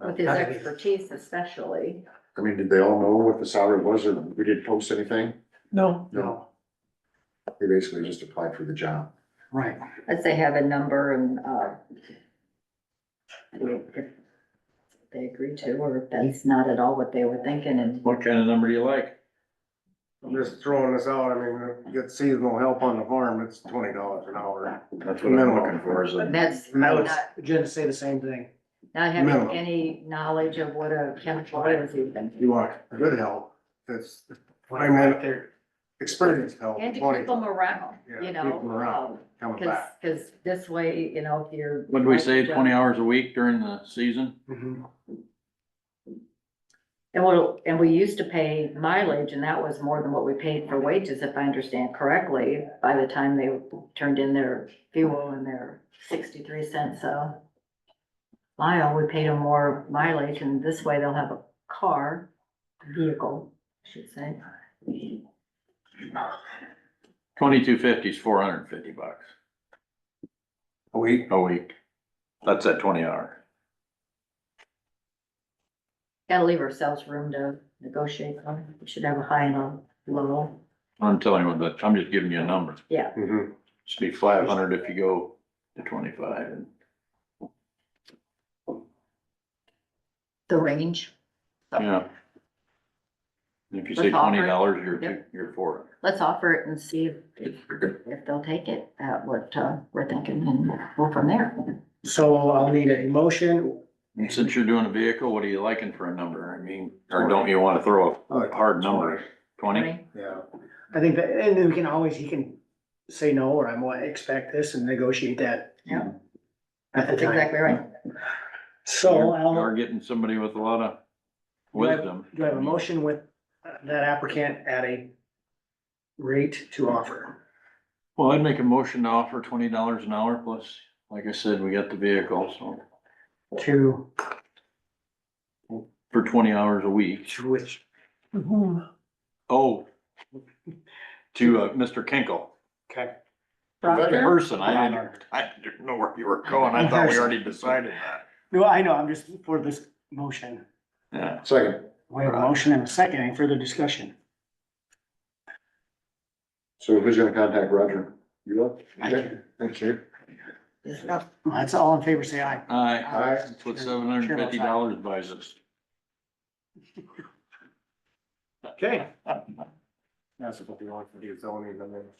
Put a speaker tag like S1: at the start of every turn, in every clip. S1: with his expertise especially.
S2: I mean, did they all know what the salary was or we didn't post anything?
S3: No,
S2: No. They basically just applied for the job.
S4: Right.
S1: Let's say have a number and, uh, if they agree to, or if that's not at all what they were thinking and
S5: What kind of number do you like?
S4: I'm just throwing this out. I mean, if you get seasonal help on the farm, it's twenty dollars an hour.
S5: That's what I'm looking for is a,
S1: that's
S4: And I would
S1: not,
S3: Jen say the same thing.
S1: not having
S4: Minimum.
S1: any knowledge of what a chemical is even.
S4: You want good help. It's I mean, experienced help,
S1: And to
S4: twenty
S1: keep them around,
S4: Yeah,
S1: you
S4: keep
S1: know,
S4: them around.
S1: um,
S4: coming
S1: cause,
S4: back.
S1: 'cause this way, you know, if you're.
S5: what do we say, twenty hours a week during the season?
S4: Mhm.
S1: And we and we used to pay mileage and that was more than what we paid for wages, if I understand correctly, by the time they turned in their fuel and their sixty-three cents a mile, we paid them more mileage and this way they'll have a car, vehicle, I should say.
S5: Twenty-two fifty is four hundred and fifty bucks
S4: A week.
S5: a week. That's at twenty hour.
S1: Gotta leave ourselves room to negotiate on, we should have a high and a low,
S5: I'm telling you, that, I'm just giving you a number.
S1: yeah.
S2: Mm-hmm.
S4: Mhm.
S5: Should be five hundred if you go to twenty-five and
S1: The range,
S5: Yeah. And If you say
S1: Let's offer it.
S5: twenty dollars, you're, two-
S1: Yep.
S5: you're four.
S1: let's offer it and see if, if- if they'll take it at what, uh, we're thinking and we'll go from there.
S3: So I'll need a motion.
S5: And since you're doing a vehicle, what are you liking for a number? I mean, or don't you wanna throw a hard number? Twenty?
S4: Yeah.
S3: I think that, and then we can always, he can say no, or I want, expect this and negotiate that.
S1: Yeah.
S3: At the
S1: That's
S3: time.
S1: exactly right.
S3: So
S5: You
S3: I'll,
S5: are getting somebody with a lot of
S3: Do I-
S5: wisdom.
S3: do I have a motion with uh, that applicant at a rate to offer?
S5: Well, I'd make a motion to offer twenty dollars an hour plus, like I said, we got the vehicle, so
S3: To,
S5: for twenty hours a week.
S3: to which? to
S6: Mm-hmm.
S3: whom?
S5: Oh. To uh, Mr. Kinkle.
S3: Okay.
S1: Roger?
S5: Person, I didn't, I didn't know where you were going. I thought we already decided that.
S3: No, I know, I'm just for this motion.
S5: Yeah.
S2: Second,
S3: We have a motion and a second. Any further discussion?
S2: so who's gonna contact Roger? You will?
S3: I can.
S2: Thank you.
S3: That's all in favor, say aye.
S5: Aye.
S2: Aye.
S5: That's what seven hundred and fifty dollars buys us.
S3: Okay.
S4: That's what you want for the zoning amendment.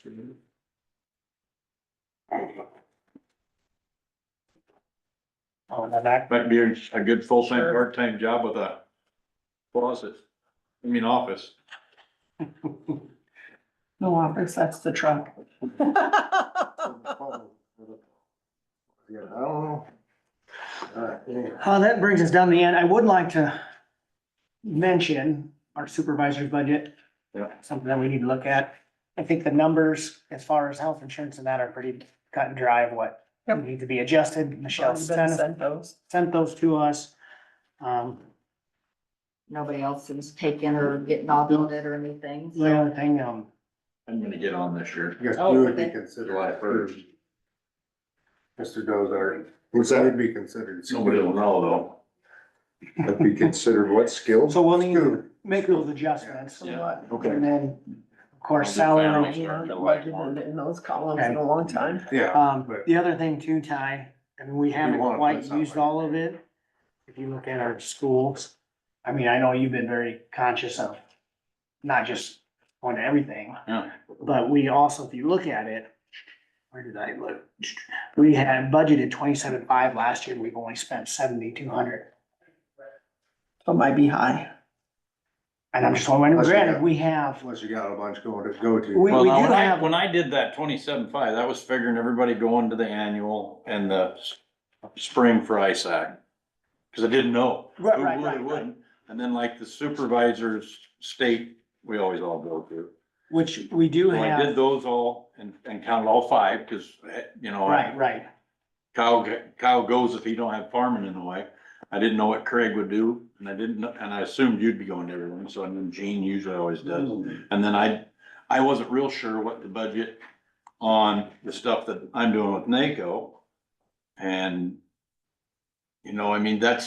S3: Oh, now that,
S5: Might be a good full-time, part-time job with a closet, I mean, office.
S6: No office, that's the truck.
S4: Yeah, I don't know. Uh, yeah.
S3: uh, that brings us down to the end. I would like to mention our supervisor's budget.
S5: Yeah.
S3: Something that we need to look at. I think the numbers as far as health insurance and that are pretty cut and dry of what
S6: Yep.
S3: need to be adjusted. Michelle
S6: Already been
S3: sent,
S6: sent those.
S3: sent those to us. Um,
S1: Nobody else is taking or getting all on it or anything.
S3: the other thing, um,
S5: I'm gonna get on this year.
S4: I guess
S1: Oh,
S4: we would be
S1: okay.
S4: considered.
S5: July first.
S4: Mr. Dozar, which that would be considered.
S5: Nobody will know, though.
S2: That'd be considered what skills?
S3: so we'll need to
S4: Good.
S3: make those adjustments.
S5: Yeah.
S3: And then, of course,
S5: I'll do family.
S3: salary.
S5: It's starting to like more.
S6: Budgeted in those columns in a long time.
S4: Yeah,
S3: Um,
S4: but-
S3: the other thing too, Ty, I mean, we haven't
S4: wanna put
S3: quite
S4: something-
S3: used all of it. If you look at our schools, I mean, I know you've been very conscious of not just on everything,
S5: Yeah.
S3: but we also, if you look at it, where did I look? We had budgeted twenty-seven five last year, and we've only spent seventy-two hundred.
S6: So it might be high.
S3: And I'm just wondering,
S4: That's
S3: granted,
S4: okay.
S3: we have,
S4: unless you got a bunch going to go to.
S3: we,
S5: Well,
S3: we do
S5: now, when I,
S3: have,
S5: when I did that twenty-seven five, that was figuring everybody going to the annual and the s- spring for ISAC. Cause I didn't know.
S3: Right,
S5: who
S3: right,
S5: would,
S3: right,
S5: who
S3: right.
S5: wouldn't. And then like the supervisors state, we always all go to.
S3: which we do
S5: So I did
S3: have,
S5: those all and, and counted all five, cause, eh, you know.
S3: right, right.
S5: Kyle, g- Kyle goes if he don't have farming in the way. I didn't know what Craig would do and I didn't, know- and I assumed you'd be going to everyone, so I knew Gene usually always does. And then I, I wasn't real sure what the budget on the stuff that I'm doing with NACO. And, you know, I mean, that's